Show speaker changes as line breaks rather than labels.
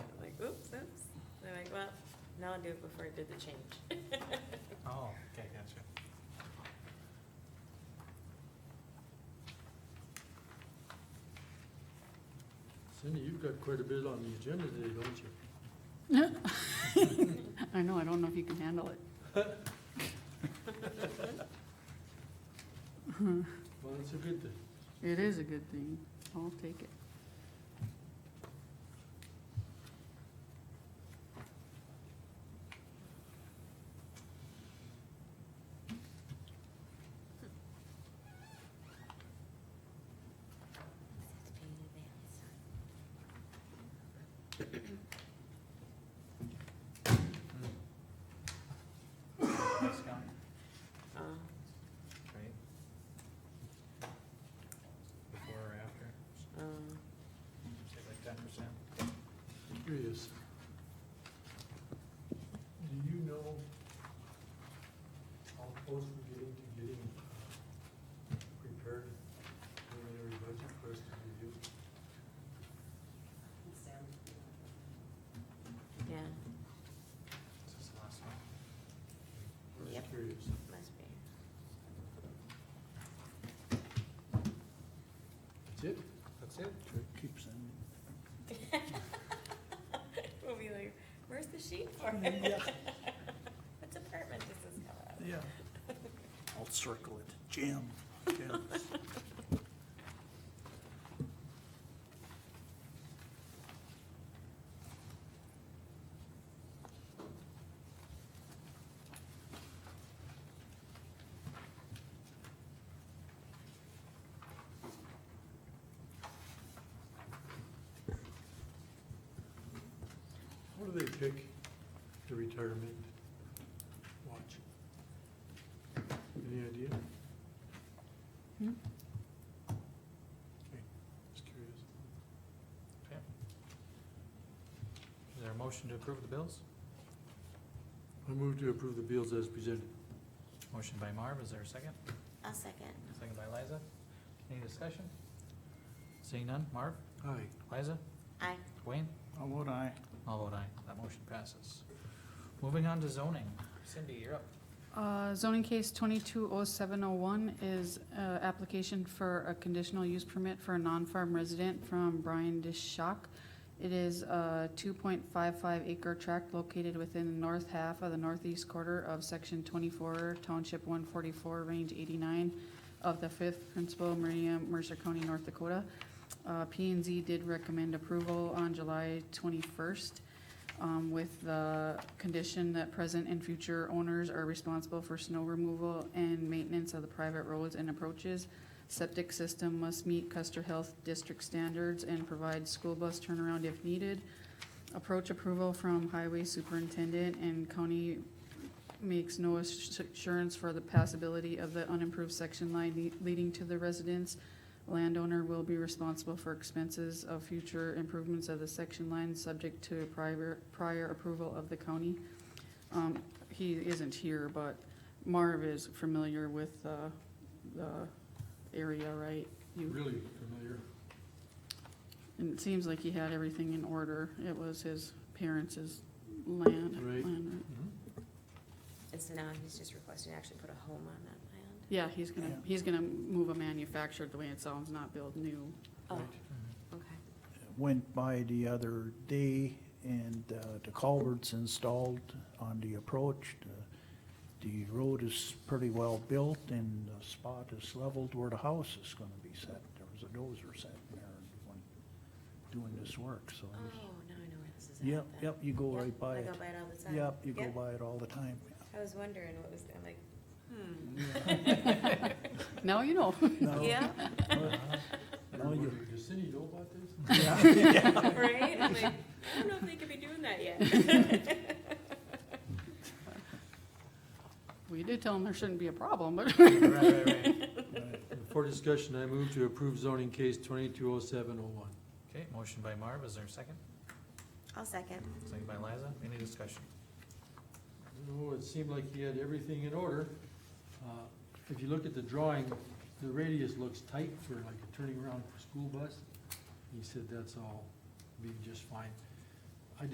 Now I do it before I did the change.
Oh, okay, gotcha.
Cindy, you've got quite a bit on the agenda today, don't you?
I know, I don't know if you can handle it.
Well, that's a good thing.
It is a good thing. I'll take it.
Discount,
Uh,
right? Before or after,
um,
say like ten percent?
I'm curious. Do you know how close we're getting to getting uh, prepared preliminary budget for us to review?
yeah,
Is this the last one?
I'm just
Yep.
curious.
must be.
That's it?
That's it?
Keep sending.
We'll be like, where's the sheet for it?
Yeah.
What department does this come out of?
Yeah. I'll circle it. Jim, Jim.
How do they pick the retirement watch? Any idea?
Hmm?
Okay, Just curious.
Is there a motion to approve the bills?
I move to approve the bills as presented.
Motion by Marv, is there a second?
I'll second.
Second by Liza. Any discussion? Seeing none, Marv,
Aye.
Liza,
Aye.
Wayne,
How about I?
all vote aye, that motion passes. Moving on to zoning, Cindy, you're up.
Uh, Zoning case 220701 is uh, application for a conditional use permit for a non-farm resident from Brian Dishock. It is a 2.55 acre tract located within the north half of the northeast quarter of Section 24, Township 144, Range 89 of the 5th Principal Meridian, Mercer County, North Dakota. Uh, p and Z did recommend approval on July 21st um, with the condition that present and future owners are responsible for snow removal and maintenance of the private roads and approaches. Septic system must meet Custer Health District standards and provide school bus turnaround if needed. Approach approval from Highway Superintendent and County makes no ass- assurance for the passability of the unimproved section line le- leading to the residence. Landowner will be responsible for expenses of future improvements of the section line, subject to prior, prior approval of the county. Um, he isn't here, but Marv is familiar with, uh, the area, right? You-
Really familiar.
And it seems like he had everything in order. It was his parents' land.
Right.
land, right?
And so now he's just requesting to actually put a home on that land?
Yeah, he's
Yeah.
gonna, he's gonna move a manufactured, the way it sounds, not build new.
Oh,
Right.
okay.
Went by the other day and uh, the culvert's installed on the approach. The- The road is pretty well built and the spot is leveled where the house is gonna be set. There was a dozer set there when doing this work, so.
Oh,
there's-
now I know where this is at.
Yep,
then.
yep, you go
Yep,
right by
I
it.
go by it all the time.
Yep, you go
Yep.
by it all the time.
I was wondering what was, I'm like, hmm.
Now you know.
No,
Yeah,
You're
no, you-
wondering, Does Cindy know about this?
right? I'm like, I don't know if they could be doing that yet.
We did tell him there shouldn't be a problem, but
Right, right, right.
For discussion, I move to approve zoning case twenty-two oh seven oh one.
Okay, motion by Marv, is there a second?
I'll second.
Second by Liza, any discussion?
No, Oh, it seemed like he had everything in order. Uh, If you look at the drawing, the radius looks tight for like a turning around for school bus. He said that's all be just fine.